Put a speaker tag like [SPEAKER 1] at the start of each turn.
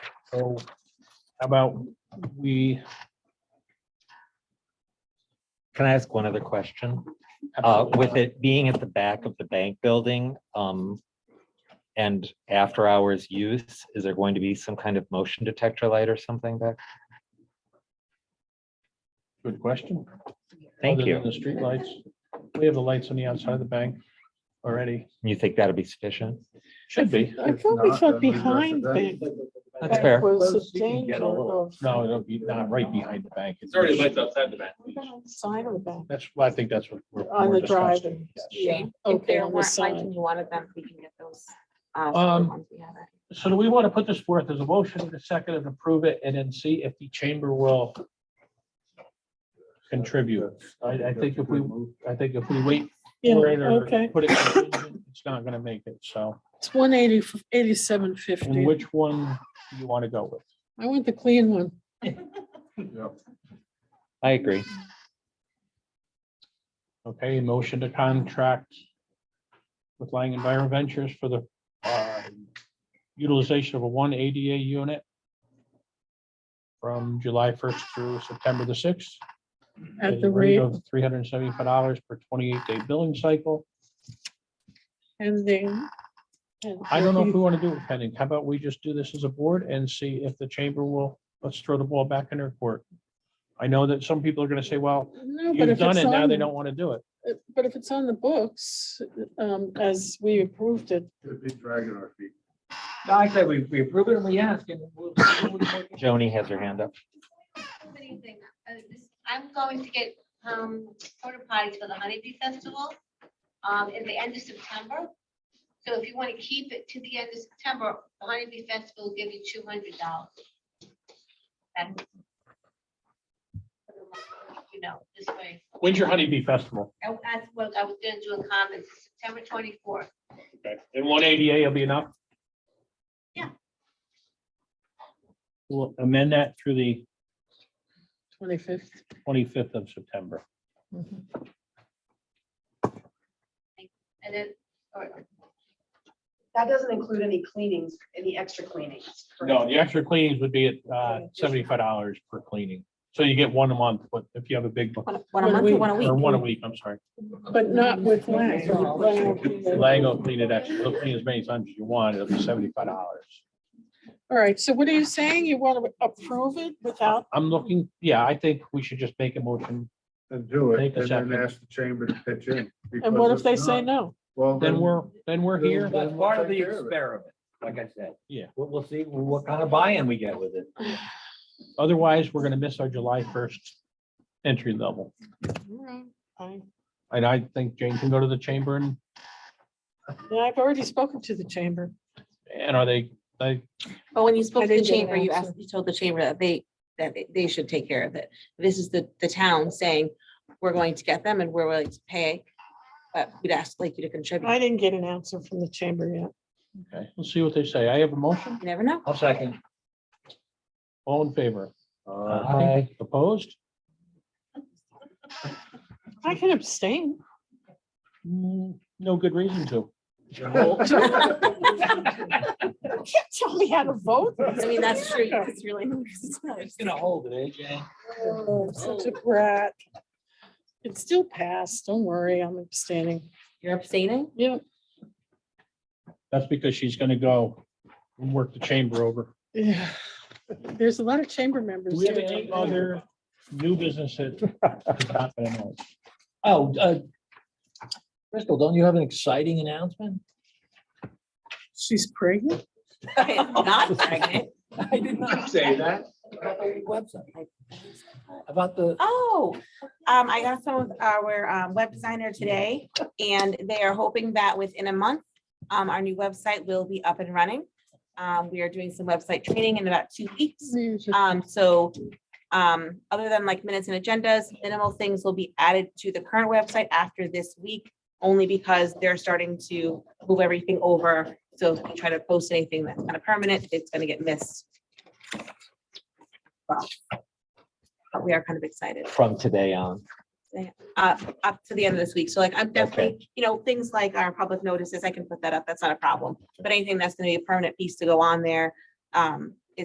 [SPEAKER 1] So how about we?
[SPEAKER 2] Can I ask one other question? Uh, with it being at the back of the bank building, um, and after hours use, is there going to be some kind of motion detector light or something back?
[SPEAKER 1] Good question.
[SPEAKER 2] Thank
[SPEAKER 1] Other than
[SPEAKER 2] you.
[SPEAKER 1] The street lights. We have the lights on the outside of the bank already.
[SPEAKER 2] You think that'll be sufficient?
[SPEAKER 1] Should be.
[SPEAKER 3] I thought we thought behind bank.
[SPEAKER 2] That's fair.
[SPEAKER 3] Was
[SPEAKER 1] Close,
[SPEAKER 3] a
[SPEAKER 1] you can
[SPEAKER 3] danger
[SPEAKER 1] get a little-
[SPEAKER 3] of.
[SPEAKER 1] No, it'll be not right behind the bank.
[SPEAKER 4] It's already lights outside the bank.
[SPEAKER 3] What about Side or back,
[SPEAKER 1] That's, well, I think that's what we're.
[SPEAKER 3] on
[SPEAKER 1] we're
[SPEAKER 3] the drive
[SPEAKER 1] discussing.
[SPEAKER 3] and.
[SPEAKER 1] Yes.
[SPEAKER 3] yeah,
[SPEAKER 5] If
[SPEAKER 3] Okay,
[SPEAKER 5] there
[SPEAKER 3] on the
[SPEAKER 5] weren't lights and
[SPEAKER 3] side.
[SPEAKER 5] you wanted them, we can get those. uh,
[SPEAKER 1] Um,
[SPEAKER 5] the ones we have.
[SPEAKER 1] So do we want to put this forth as a motion in a second and approve it and then see if the chamber will contribute? I, I think if we, I think if we wait
[SPEAKER 3] Yeah,
[SPEAKER 1] for it or
[SPEAKER 3] okay,
[SPEAKER 1] put it, contingent, it's not going to make it. So,
[SPEAKER 3] it's one eighty, eighty-seven fifty.
[SPEAKER 1] and which one do you want to go with?
[SPEAKER 3] I want the clean one.
[SPEAKER 2] I agree.
[SPEAKER 1] Okay, motion to contract with Lang Environ Ventures for the uh, utilization of a one ADA unit from July first through September the sixth.
[SPEAKER 3] At the rate,
[SPEAKER 1] of Three hundred and seventy-five dollars per twenty-eight day billing cycle.
[SPEAKER 3] and then. and
[SPEAKER 1] I don't know if
[SPEAKER 3] if
[SPEAKER 1] we
[SPEAKER 3] you-
[SPEAKER 1] want to do it pending. How about we just do this as a board and see if the chamber will, let's throw the ball back in their court. I know that some people are going to say, well,
[SPEAKER 3] No, but
[SPEAKER 1] you've
[SPEAKER 3] if
[SPEAKER 1] done
[SPEAKER 3] it's
[SPEAKER 1] it, now
[SPEAKER 3] on,
[SPEAKER 1] they don't want to do it.
[SPEAKER 3] uh, but if it's on the books, um, as we approved it,
[SPEAKER 6] It'd be dragging our feet.
[SPEAKER 4] I said, we, we approve it and we ask and we'll.
[SPEAKER 2] Joni has her hand up.
[SPEAKER 7] Anything, uh, this- I'm going to get um, porta potties for the honeybee festival um, at the end of September. So if you want to keep it to the end of September, the honeybee festival will give you two hundred dollars. You know, this way,
[SPEAKER 1] When's your honeybee festival?
[SPEAKER 7] And that's what I was gonna do in comments, September twenty-fourth.
[SPEAKER 1] And one ADA will be enough?
[SPEAKER 7] Yeah.
[SPEAKER 1] We'll amend that through the
[SPEAKER 3] twenty-fifth.
[SPEAKER 1] twenty-fifth of September.
[SPEAKER 7] And then, or
[SPEAKER 8] That doesn't include any cleanings, any extra cleanings.
[SPEAKER 1] No, the extra cleanings would be at uh, seventy-five dollars per cleaning. So you get one a month, but if you have a big, one
[SPEAKER 5] One- One a month or one a
[SPEAKER 1] or
[SPEAKER 5] week?
[SPEAKER 1] one a week, I'm sorry.
[SPEAKER 3] But not with Lang. All
[SPEAKER 1] Lang will clean it extra, he'll clean as many times as you want, it'll be seventy-five dollars.
[SPEAKER 3] right, so what are you saying? You want to approve it without,
[SPEAKER 1] I'm looking, yeah, I think we should just make a motion.
[SPEAKER 6] And do
[SPEAKER 1] Take
[SPEAKER 6] it,
[SPEAKER 1] a
[SPEAKER 6] and
[SPEAKER 1] second.
[SPEAKER 6] then ask the chamber to pitch in.
[SPEAKER 3] and
[SPEAKER 6] because
[SPEAKER 3] what if they
[SPEAKER 6] not,
[SPEAKER 3] say no?
[SPEAKER 6] Well,
[SPEAKER 1] Then we're, then we're here.
[SPEAKER 4] That's part of the experiment, like I said.
[SPEAKER 1] Yeah.
[SPEAKER 4] We'll, we'll see what kind of buy-in we get with it.
[SPEAKER 1] Otherwise, we're gonna miss our July first entry level.
[SPEAKER 3] All right, fine.
[SPEAKER 1] And I think Jane can go to the chamber and,
[SPEAKER 3] Yeah, I've already spoken to the chamber.
[SPEAKER 1] and are they, they,
[SPEAKER 5] But Oh, when you
[SPEAKER 3] I
[SPEAKER 5] spoke to the
[SPEAKER 3] didn't get an
[SPEAKER 5] chamber, you
[SPEAKER 3] answer.
[SPEAKER 5] asked, you told the chamber that they, that they- they should take care of it. This is the, the town saying, we're going to get them and we're willing to pay. But we'd ask like you to contribute.
[SPEAKER 3] I didn't get an answer from the chamber yet.
[SPEAKER 1] okay, we'll see what they say. I have a motion,
[SPEAKER 5] You never know.
[SPEAKER 4] I'll second.
[SPEAKER 1] all in favor,
[SPEAKER 2] Aye.
[SPEAKER 1] opposed?
[SPEAKER 3] I can abstain.
[SPEAKER 1] Mm, No good reason to.
[SPEAKER 3] You can't tell me how to vote.
[SPEAKER 5] I mean, that's true. It's really. it's not-
[SPEAKER 4] It's gonna hold it, eh, Jane?
[SPEAKER 3] Oh, I'm Such a brat. It still passed. Don't worry, I'm abstaining.
[SPEAKER 5] You're abstaining?
[SPEAKER 3] Yeah,
[SPEAKER 1] That's because she's gonna go and work the chamber over.
[SPEAKER 3] yeah. There's a lot of chamber members.
[SPEAKER 1] Do we have
[SPEAKER 3] that
[SPEAKER 1] any
[SPEAKER 3] don't know.
[SPEAKER 1] other new business that?
[SPEAKER 4] Oh, uh, Crystal, don't you have an exciting announcement?
[SPEAKER 3] She's pregnant?
[SPEAKER 5] Not pregnant.
[SPEAKER 4] I did not say that. About the website. About the.
[SPEAKER 5] Oh, um, I got some of our um, web designer today and they are hoping that within a month, um, our new website will be up and running. Um, we are doing some website training in about two weeks. Um, so, um, other than like minutes and agendas, minimal things will be added to the current website after this week, only because they're starting to move everything over. So if you try to post anything that's kind of permanent, it's gonna get missed. Well, But we are kind of excited
[SPEAKER 2] From today on.
[SPEAKER 5] uh, up to the end of this week. So like, I'm definitely, you know, things like our public notices, I can put that up. That's not a problem. But anything that's gonna be a permanent piece to go on there, um,